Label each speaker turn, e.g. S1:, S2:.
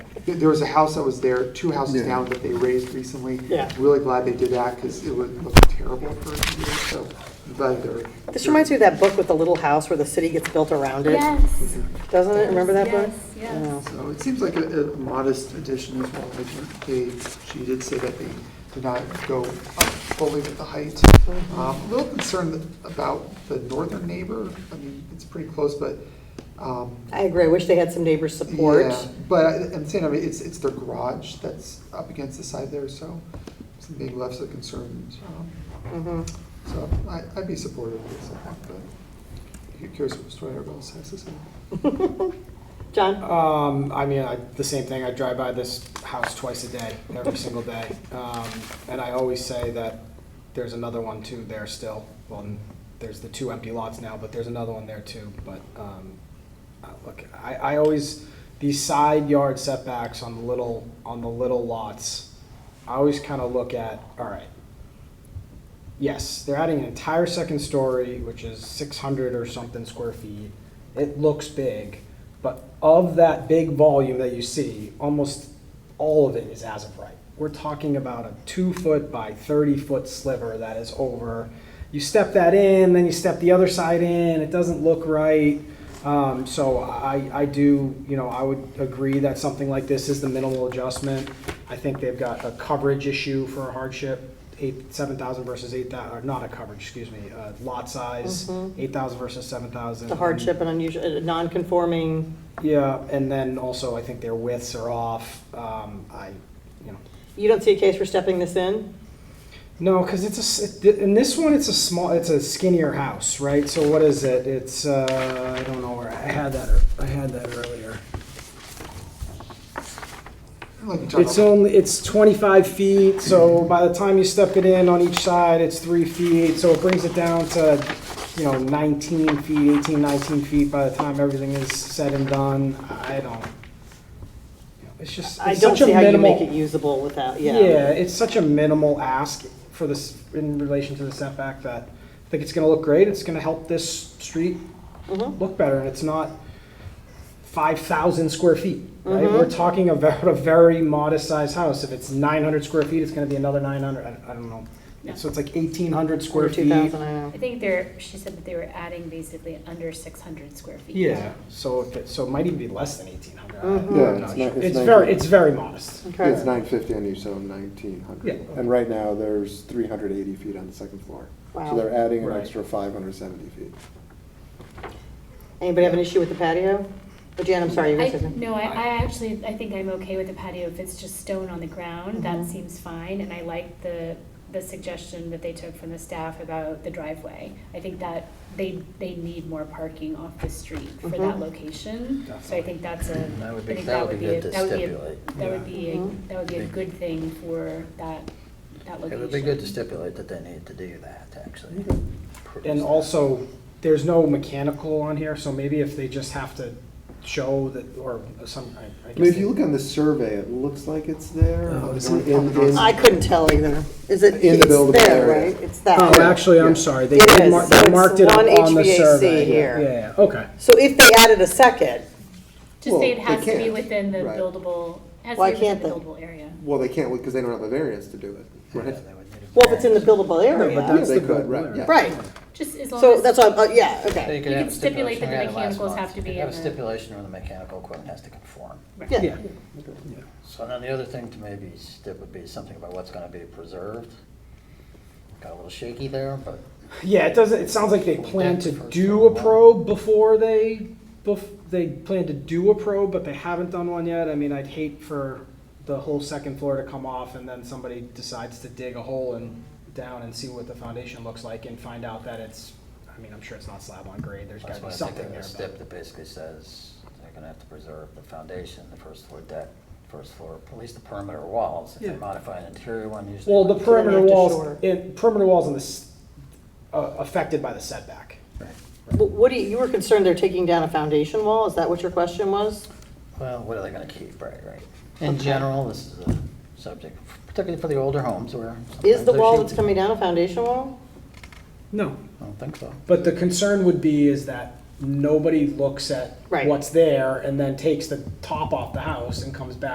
S1: th- there was a house that was there, two houses
S2: Yeah.
S1: down that they raised recently.
S3: Yeah.
S1: Really glad they did that because it would look terrible for a year, so I'm glad they're.
S3: This reminds me of that book with the little house where the city gets built around it.
S4: Yes.
S3: Doesn't it? Remember that book?
S4: Yes, yes.
S3: Yeah.
S1: So it seems like a a modest addition as well. I think They, she did say that they did not go up fully with the height.
S3: Mm-hmm.
S1: Um, A little concerned about the northern neighbor. I mean, it's pretty close, but, um,
S3: I agree. I wish they had some neighbor support.
S1: yeah, But I- I'm saying, I mean, it's, it's their garage that's up against the side there, so something being left so concerned. um,
S3: Mhm.
S1: So I, I'd be supportive of this, I think, but I'm curious what story everyone else has to say.
S3: John?
S5: Um, I mean, I, the same thing. I drive by this house twice a day, every single day, um, and I always say that there's another one too there still. Well, n- there's the two empty lots now, but there's another one there too. But um, uh, look, I, I always these side yard setbacks on the little on the little lots. I always kind of look at all right. Yes, they're adding an entire second story, which is 600 or something square feet. It looks big, but of that big volume that you see, almost all of it is as of right. We're talking about a two foot by 30 foot sliver that is over. You step that in, then you step the other side in, it doesn't look right. Um, so I, I do, you know, I would agree that something like this is the minimal adjustment. I think they've got a coverage issue for a hardship eight, seven thousand versus eight thousand, or not a coverage, excuse me, uh, lot size, eight thousand versus seven thousand.
S3: Mm-hmm. The hardship and unusual, uh, non-conforming.
S5: Yeah, and then also I think their widths are off, um, I, you know.
S3: You don't see a case for stepping this in?
S5: No, cause it's a, s- it- in this one, it's a small, it's a skinnier house, right? So what is it? It's, uh, I don't know where, I had that, ear- I had that earlier.
S1: Like you talked
S5: It's
S1: about-
S5: only, it's twenty-five feet, so by the time you step it in on each side, it's three feet, so it brings it down to, you know, nineteen feet, 18, 19 feet by the time everything is said and done, I don't. you know, It's just,
S3: I
S5: it's
S3: don't
S5: such a
S3: see how you make it
S5: minimal.
S3: usable without,
S5: Yeah,
S3: yeah.
S5: it's such a minimal ask for this, in relation to the setback, that I think it's gonna look great, it's gonna help this street
S3: Mhm.
S5: look better, and it's not five thousand square feet. Right? We're talking about a very modest sized house. If it's nine hundred square feet, it's going to be another nine hundred. I, I don't know. So it's like eighteen hundred square
S3: Or
S5: feet.
S3: 2,000, I know.
S4: I think they're, she said that they were adding basically under six hundred square feet.
S5: Yeah. So if it, so it might even be less than eighteen hundred.
S3: Mhm.
S2: Yeah, it's not-
S5: It's,
S2: it's not-
S5: very it's very modest.
S3: Okay.
S2: It's nine fifty on each, so nineteen hundred.
S5: Yeah.
S2: And right now, there's three hundred eighty feet on the second floor.
S3: Wow.
S2: So they're adding an
S5: Right.
S2: extra five hundred seventy feet.
S3: Anybody have an issue with the patio? Oh, Jan, I'm sorry, you were
S4: I,
S3: gonna say something.
S4: no, I, I actually, I think I'm okay with the patio if it's just stone on the ground, that seems fine, and I like the, the suggestion that they took from the staff about the driveway. I think that they, they need more parking off the street for that
S3: Mhm.
S4: location, so I
S5: Definitely.
S4: think that's a,
S6: That
S4: I
S6: would be-
S4: think
S6: that
S4: that
S6: would
S4: would
S6: be
S4: be, a-
S6: good to
S4: that would be, a-
S6: stipulate.
S4: that would be,
S3: Mhm.
S4: a- that would be a
S6: Big-
S4: good thing for that, that location.
S6: It would be good to stipulate that they need to do that, actually.
S5: And also, there's no mechanical on here, so maybe if they just have to show that or some. I, I guess
S2: I mean, if
S5: they-
S2: you look on the survey, it looks like it's there.
S5: Oh, is
S2: In-
S5: it?
S2: in- in-
S3: I couldn't tell either. Is it,
S2: In the
S3: it's
S2: buildable
S3: there,
S2: area.
S3: right? It's that.
S5: Oh,
S3: way.
S5: actually, I'm sorry. They
S3: It
S5: did
S3: is.
S5: mar-
S3: So
S5: they
S3: it's
S5: marked it up
S3: one
S5: on the
S3: HVAC
S5: survey. Yeah,
S3: here.
S5: Yeah, yeah, okay.
S3: So if they added a second,
S4: Just say it
S2: Well,
S4: has
S2: they
S4: to be
S2: can't,
S4: within the
S2: right.
S4: buildable, has
S3: Why
S4: to be within
S3: can't
S4: the
S3: they?
S4: buildable area.
S2: Well, they can't, because they don't have a variance to do it,
S6: Yeah,
S2: right?
S6: they would need a
S3: well, if it's in the buildable
S5: but
S3: area,
S5: that's
S2: Yeah, they
S5: the
S2: could,
S5: good
S2: right,
S5: word.
S2: yeah.
S3: right?
S4: Just as long as.
S3: So that's why, I'm- uh, yeah,
S6: So
S3: okay.
S4: You
S6: have
S4: can
S6: a
S4: stipulate
S6: stipulation,
S4: that the
S6: we had it last
S4: mechanicals
S6: month.
S4: have to
S6: You
S4: be
S6: could Have a
S4: in the-
S6: stipulation where the mechanical equipment has to conform.
S3: Yeah,
S6: So then the other thing to maybe stip would be something about what's gonna be preserved. Got a little shaky there, but
S5: Yeah, it doesn't, it sounds like they plan to
S6: That's the first
S5: do
S6: one.
S5: a probe before they, bef- they plan to do a probe, but they haven't done one yet. I mean, I'd hate for the whole second floor to come off and then somebody decides to dig a hole and down and see what the foundation looks like and find out that it's, I mean, I'm sure it's not slab on grade, there's
S6: that's
S5: gotta be
S6: why I think
S5: something
S6: of a
S5: there.
S6: stip that basically says they're gonna have to preserve the foundation, the first floor deck, first floor, at least the perimeter walls. If
S5: Yeah.
S6: they modify an interior one,
S5: but-
S6: usually.
S5: Well, the perimeter
S3: have to
S5: walls,
S3: shore.
S5: in, perimeter walls in this, uh, affected by the setback.
S3: Well, What do you, you were concerned they're taking down a foundation wall? Is that what your question was?
S6: Well, what are they gonna keep, right, right? In general, this is a subject, particularly for the older homes where.
S3: Is
S6: sometimes
S3: the wall
S6: there's-
S3: that's coming down a foundation wall?
S5: No,
S6: I don't think so.
S5: But the concern would be is that nobody looks at
S3: Right.
S5: what's there and then takes the top off the house and comes back